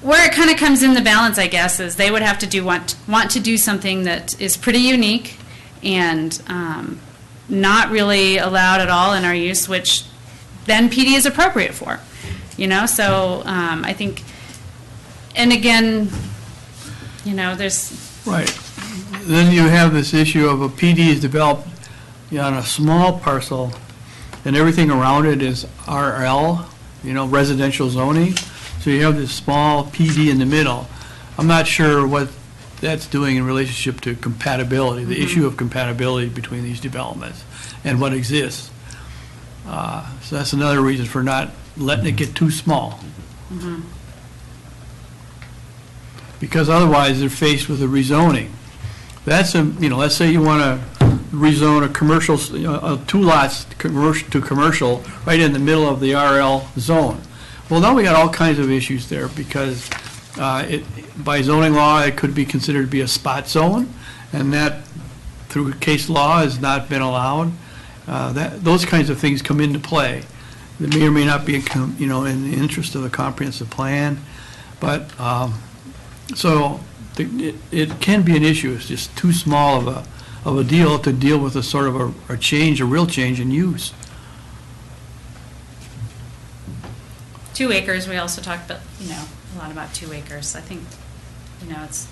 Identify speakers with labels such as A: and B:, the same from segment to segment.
A: where it kind of comes in the balance, I guess, is they would have to do want want to do something that is pretty unique and um, not really allowed at all in our use, which then PD is appropriate for. You know, so um, I think, and again, you know, there's
B: Right. Then you have this issue of a PD is developed you know, on a small parcel, and everything around it is RL, you know, residential zoning. So you have this small PD in the middle. I'm not sure what that's doing in relationship to compatibility, the issue of compatibility between these developments and what exists. Uh, So that's another reason for not letting it get too small. because otherwise they're faced with a rezoning. That's a, you know, let's say you want to rezone a commercial, you know, uh, two lots to commercial, to commercial, right in the middle of the RL zone. Well, now we got all kinds of issues there because uh, it, by zoning law, it could be considered to be a spot zone, and that through case law has not been allowed. Uh, That, those kinds of things come into play. They may or may not be, in com- you know, in the interest of the comprehensive plan, but, um, so the- it it can be an issue, it's just too small of a, of a deal to deal with a sort of a- a change, a real change in use.
A: two acres. We also talked about, you know, a lot about two acres. I think, you know, it's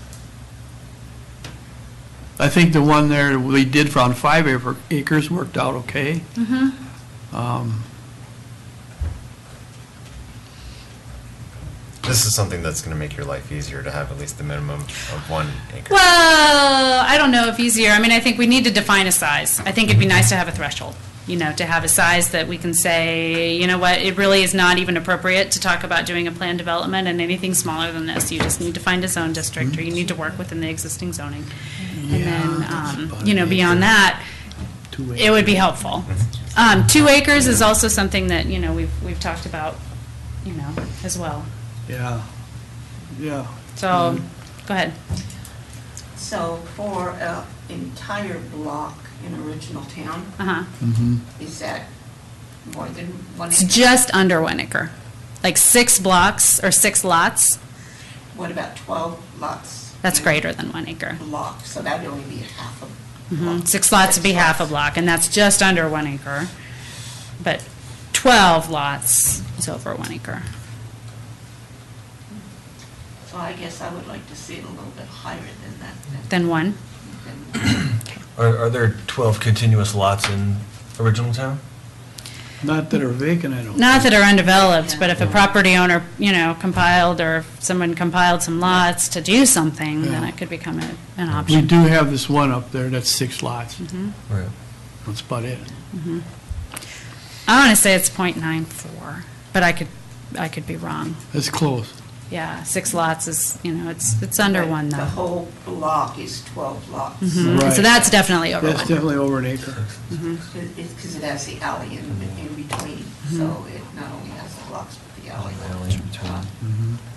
B: I think the one there we did for on five acre- acres worked out okay.
A: Mm-hmm.
B: Um,
C: This is something that's going to make your life easier to have at least the minimum of one acre.
A: Well, I don't know if easier. I mean, I think we need to define a size. I think it'd be nice to have a threshold, you know, to have a size that we can say, you know what, it really is not even appropriate to talk about doing a plan development and anything smaller than this. You just need to find a zone district or you need to work within the existing zoning. And then, um, you know, beyond that,
B: two
A: it would be helpful. Um, two acres is also something that, you know, we've, we've talked about, you know, as well.
B: Yeah, yeah.
A: So, go ahead.
D: So for an entire block in original town,
A: Uh-huh.
D: is that more than one
A: It's
D: acre?
A: just under one acre, like six blocks or six lots,
D: What about 12 lots?
A: that's
D: in a
A: greater than one acre.
D: Block, so that'd only be half a
A: Mhm.
D: block.
A: Six lots would be half a block, and that's just under one acre. But 12 lots is over one acre.
D: So I guess I would like to see it a little bit higher than that.
A: Then one,
D: than-
E: Are, are there 12 continuous lots in original town?
B: Not that are vacant, I don't.
A: not
B: think.
A: that are undeveloped, but if a property owner, you know, compiled, or if someone compiled some lots to do something, then
B: Yeah.
A: it could become a- an
B: We
A: option. Mm-hmm.
B: do have this one up there, that's six lots,
E: Right.
B: that's about it.
A: I want to say it's .94, but I could, I could be wrong.
B: That's close.
A: Yeah, six lots is, you know, it's, it's under
D: But
A: one, though. Mm-hmm.
D: The whole block is 12 lots,
B: Right.
A: So that's definitely over
B: That's
A: one. Mm-hmm.
B: definitely over an acre.
D: because it has the alley in in between,
A: Mm-hmm.
D: so it not only has the blocks, but the alley.
E: Alley in between.
D: Uh,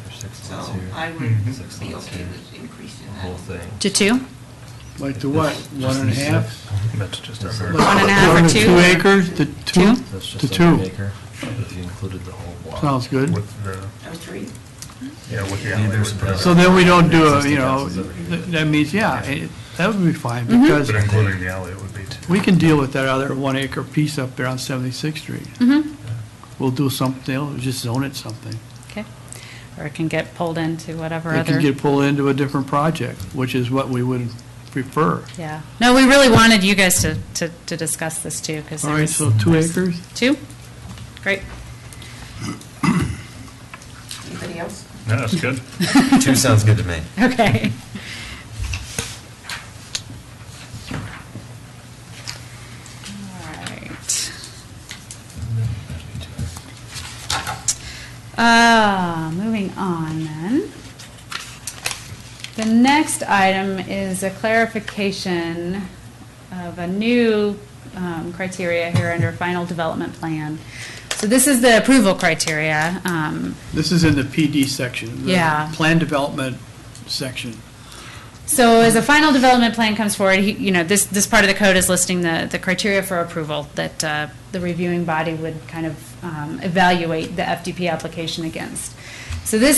E: There's six
D: So
E: lots here. Mm-hmm.
D: I would
F: Hmm.
E: Six
D: be
E: lots
D: okay
E: here.
D: with increasing
E: The
D: that.
E: whole thing.
A: To two?
B: Like to what, one and a half?
E: That's just under.
A: One and a half or
B: One to
A: two,
B: Two
A: or-
B: acres, to two?
A: Two?
E: That's
B: To
E: just
B: two.
E: under an acre. If you included the whole block.
B: Sounds good.
F: With the,
D: Or three?
F: yeah, with the
E: Yeah,
F: alley.
E: there's
F: with
E: a-
F: the-
B: So then we don't do, a
E: Existing
B: you know,
E: houses over here.
B: th- that means, yeah, it- that would be fine,
A: Mm-hmm.
B: because
F: But including the alley, it would be two.
B: we can deal with that other one acre piece up there on 76th Street.
A: Mm-hmm.
B: We'll do something, else, just zone it something.
A: Okay. Or it can get pulled into whatever
B: It
A: other,
B: can get pulled into a different project, which is what we would prefer.
A: yeah. No, we really wanted you guys to, to, to discuss this too, because
B: All right, so two acres?
A: Two? Great.
D: Anybody else?
F: No, that's good.
C: Two sounds good to me.
A: Okay. All right. Uh, moving on then. The next item is a clarification of a new um, criteria here under final development plan. So this is the approval criteria. um,
B: This is in the PD section. the
A: Yeah.
B: Plan development section.
A: So as a final development plan comes forward, he- you know, this, this part of the code is listing the, the criteria for approval that uh, the reviewing body would kind of um, evaluate the FDP application against. So this